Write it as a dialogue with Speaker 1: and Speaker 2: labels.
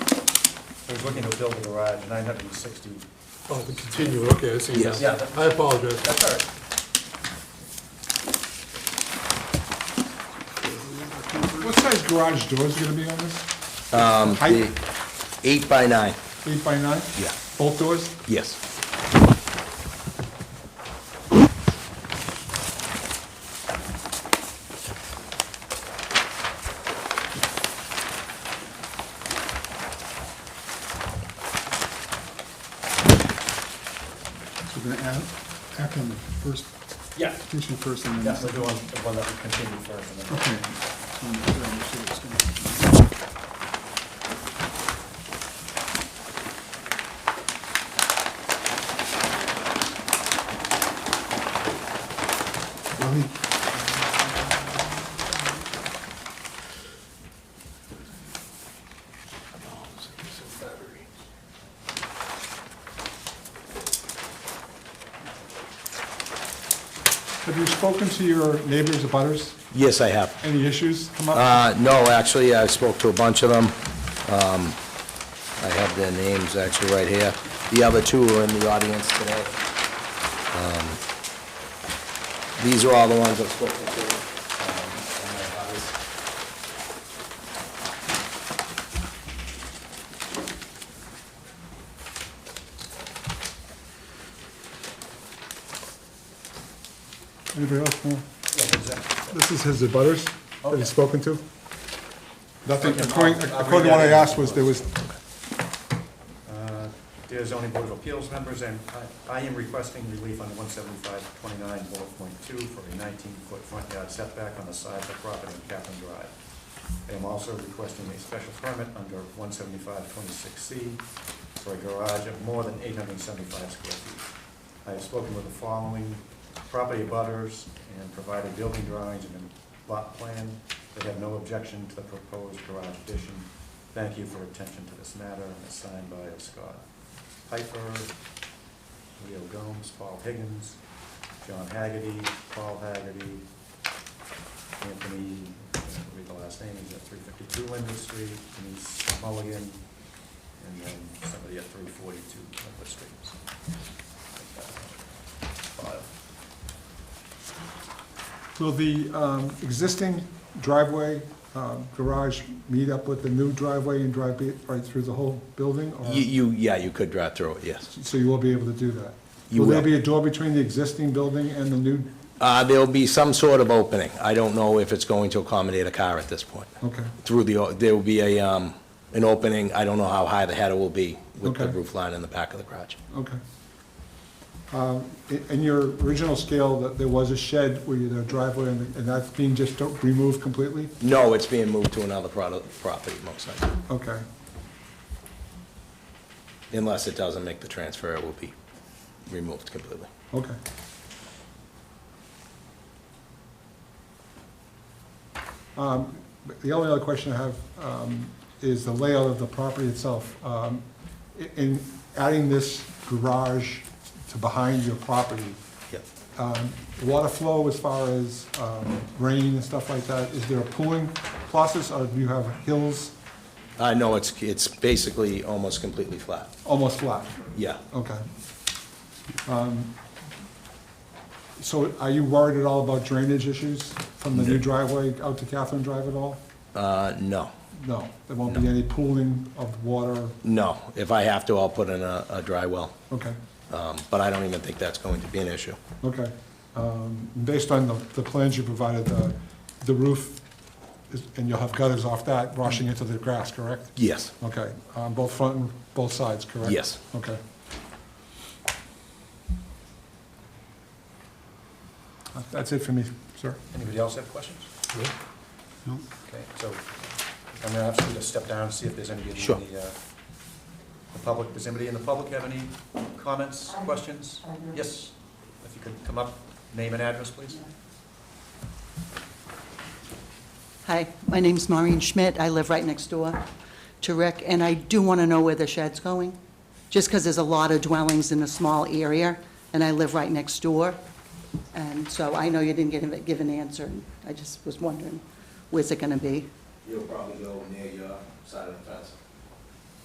Speaker 1: He's looking to build a garage, nine hundred and sixty.
Speaker 2: Oh, to continue, okay, I see now.
Speaker 1: Yeah. Yeah.
Speaker 2: I apologize.
Speaker 1: That's all right.
Speaker 3: What size garage doors are gonna be on this? Um. Height,
Speaker 4: The Eight by nine.
Speaker 3: eight by nine?
Speaker 4: Yeah.
Speaker 3: Both doors?
Speaker 4: Yes.
Speaker 3: So we're gonna add, act on the first,
Speaker 1: Yeah.
Speaker 3: petition first and then.
Speaker 1: That's the one, the one that we continue first. and then-
Speaker 3: Okay. Um, sure, I'm sure it's gonna- Well, he- Have you spoken to your neighbors abutters?
Speaker 4: Yes, I have.
Speaker 3: Any issues come up?
Speaker 4: Uh, no, actually, I spoke to a bunch of them. Um, I have their names actually right here. The other two are in the audience today. Um, These are all the ones I spoke to. um, and my others.
Speaker 3: Anybody else? No?
Speaker 1: Yeah, who's that?
Speaker 3: This is his abutters that
Speaker 1: Okay.
Speaker 3: he's spoken to? Nothing,
Speaker 1: Okay,
Speaker 3: according,
Speaker 1: I'll- I'll
Speaker 3: according to
Speaker 1: read
Speaker 3: what I
Speaker 1: that.
Speaker 3: asked was, there was,
Speaker 1: Uh, Dear zoning board of appeals members, and I am requesting relief on one seventy-five twenty-nine bullet point two for a nineteen-foot front yard setback on the side of the property in Kaplan Drive. I am also requesting a special permit under one seventy-five twenty-six C for a garage of more than eight hundred and seventy-five square feet. I have spoken with the following property butters and provided building drawings and a lot plan. They have no objection to the proposed garage addition. Thank you for attention to this matter, and it's signed by Scott Piper, Leo Gomes, Paul Higgins, John Haggerty, Paul Haggerty, Anthony, I can't read the last name, he's at three fifty-two Linwood Street, Denise Mulligan, and then somebody at three forty-two Linwood Street. So, File.
Speaker 3: will the um, existing driveway, um, garage meet up with the new driveway and drive be- right through the whole building? or-
Speaker 4: You, you, yeah, you could drive through it, yes.
Speaker 3: So you will be able to do that?
Speaker 4: You
Speaker 3: there
Speaker 4: will.
Speaker 3: be a door between the existing building and the new?
Speaker 4: Uh, there'll be some sort of opening. I don't know if it's going to accommodate a car at this point.
Speaker 3: Okay,
Speaker 4: Through the, o- there will be a, um, an opening. I don't know how high the header will be with the
Speaker 3: Okay.
Speaker 4: roof line in the back of the garage.
Speaker 3: okay. Um, i- In your original scale, that there was a shed where you, the driveway, and and that's being just removed completely?
Speaker 4: No, it's being moved to another product, property, most likely.
Speaker 3: Okay,
Speaker 4: Unless it doesn't make the transfer, it will be removed completely.
Speaker 3: okay. Um, but The only other question I have um, is the layout of the property itself. Um, i- In adding this garage to behind your property,
Speaker 4: Yep.
Speaker 3: um, water flow as far as um, rain and stuff like that, is there a pooling process, or do you have hills
Speaker 4: Uh, no, it's, it's basically almost completely flat.
Speaker 3: almost flat?
Speaker 4: Yeah.
Speaker 3: Okay. Um, So are you worried at all about drainage issues from the new driveway out to Catherine Drive at all?
Speaker 4: Uh, no,
Speaker 3: No, there won't be any pooling of water,
Speaker 4: no. If I have to, I'll put in a, a dry well.
Speaker 3: okay,
Speaker 4: Um, but I don't even think that's going to be an issue.
Speaker 3: okay. Um, Based on the, the plans you provided, the, the roof, is- and you'll have gutters off that washing into the grass, correct?
Speaker 4: Yes.
Speaker 3: Okay, on both front and both sides, correct?
Speaker 4: Yes.
Speaker 3: Okay. That's it for me, sir.
Speaker 1: Anybody else have questions? Okay, so I'm gonna ask you to step down and see if there's anybody
Speaker 4: Sure.
Speaker 1: in the, uh, the public, does anybody in the public have any comments, questions? Yes, if you could come up, name and address, please.
Speaker 5: Hi, my name's Maureen Schmidt. I live right next door to Rick, and I do want to know where the shed's going, just because there's a lot of dwellings in a small area, and I live right next door. And so I know you didn't get a- give an answer, and I just was wondering, where's it going to be?
Speaker 6: You'll probably go near your side of the fence.